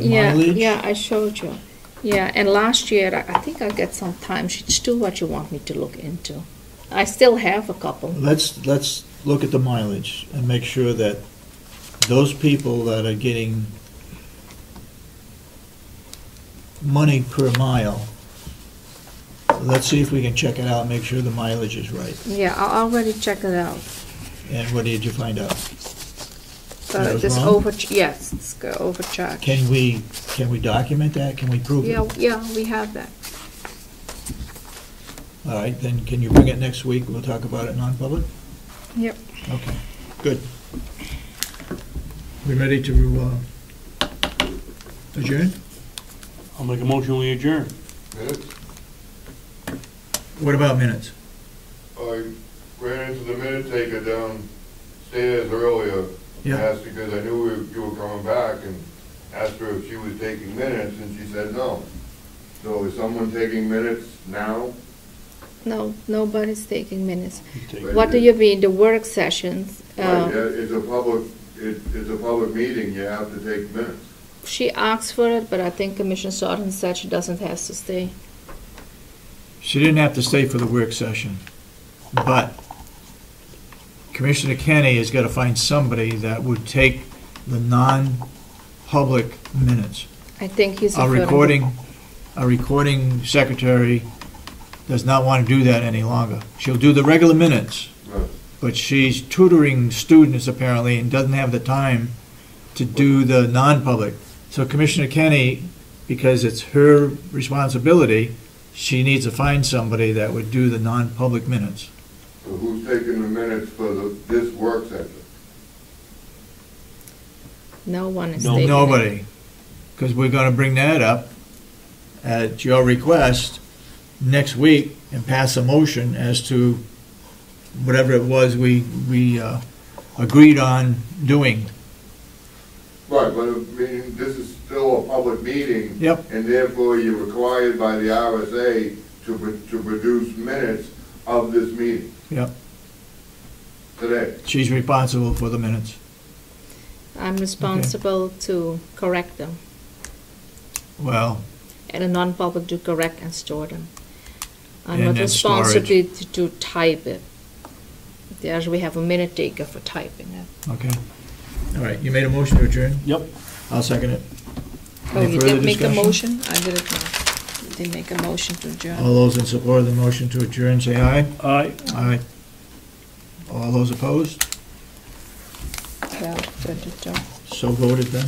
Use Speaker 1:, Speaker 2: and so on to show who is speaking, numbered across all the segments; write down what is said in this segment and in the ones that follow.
Speaker 1: the
Speaker 2: Yeah,
Speaker 1: mileage?
Speaker 2: yeah, I showed you. Yeah, and last year, I I think I got some time. It's still what you want me to look into. I still have a couple.
Speaker 1: Let's, let's look at the mileage and make sure that those people that are getting money per mile, let's see if we can check it out, make sure the mileage is right.
Speaker 2: Yeah, I already checked it out.
Speaker 1: And what did you find out? That
Speaker 2: But
Speaker 1: was
Speaker 2: Uh, this
Speaker 1: wrong?
Speaker 2: over, yes, it's go- overcharged.
Speaker 1: Can we, can we document that? Can we prove it?
Speaker 2: Yeah, yeah, we have that.
Speaker 1: All right, then can you bring it next week? We'll talk about it non-public?
Speaker 2: Yep.
Speaker 1: Okay, good. We ready to uh, adjourn?
Speaker 3: I'll make a motion, we adjourn.
Speaker 4: minutes.
Speaker 1: What about minutes?
Speaker 4: I Oh, ran into the minute taker downstairs earlier.
Speaker 1: Yeah.
Speaker 4: Asked because I knew we- you were coming back and asked her if she was taking minutes and she said no. So is someone taking minutes now?
Speaker 2: No, nobody's taking minutes.
Speaker 3: Take-
Speaker 2: What do you mean, the work sessions?
Speaker 1: Oh,
Speaker 4: Like,
Speaker 2: Um,
Speaker 4: yeah, It's a public, it, it's a public meeting, you have to take minutes.
Speaker 2: She asked for it, but I think Commissioner Sargent said she doesn't have to stay.
Speaker 1: She didn't have to stay for the work session, but Commissioner Kenny has got to find somebody that would take the non-public minutes.
Speaker 2: I think he's.
Speaker 1: Our
Speaker 2: referring to-
Speaker 1: recording, our recording secretary does not want to do that any longer. She'll do the regular minutes,
Speaker 4: Right.
Speaker 1: but she's tutoring students apparently and doesn't have the time to do the non-public. So Commissioner Kenny, because it's her responsibility, she needs to find somebody that would do the non-public minutes.
Speaker 4: So who's taking the minutes for the, this work session?
Speaker 2: No one is
Speaker 3: No.
Speaker 2: taking it.
Speaker 1: Nobody, because we're going to bring that up at your request next week and pass a motion as to whatever it was we, we uh, agreed on doing.
Speaker 4: Right, but I mean, this is still a public meeting.
Speaker 1: Yep.
Speaker 4: And therefore, you're required by the RSA to, pro- to produce minutes of this meeting
Speaker 1: Yep,
Speaker 4: today.
Speaker 1: she's responsible for the minutes.
Speaker 2: I'm responsible to correct them,
Speaker 1: Well,
Speaker 2: and a non-public to correct and store them. I'm
Speaker 1: And
Speaker 2: not
Speaker 1: then storage.
Speaker 2: responsible to to type it. There's, we have a minute taker for typing it.
Speaker 1: okay. All right, you made a motion to adjourn?
Speaker 3: Yep.
Speaker 1: I'll second it.
Speaker 2: Oh,
Speaker 1: Any
Speaker 2: you
Speaker 1: further
Speaker 2: did make a
Speaker 1: discussion? Oh.
Speaker 2: motion? I did it not. You did make a motion to adjourn.
Speaker 1: All those in support of the motion to adjourn, say aye.
Speaker 3: Aye.
Speaker 1: Aye. All those opposed?
Speaker 2: Yeah, good job.
Speaker 1: So voted then.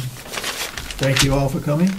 Speaker 1: Thank you all for coming.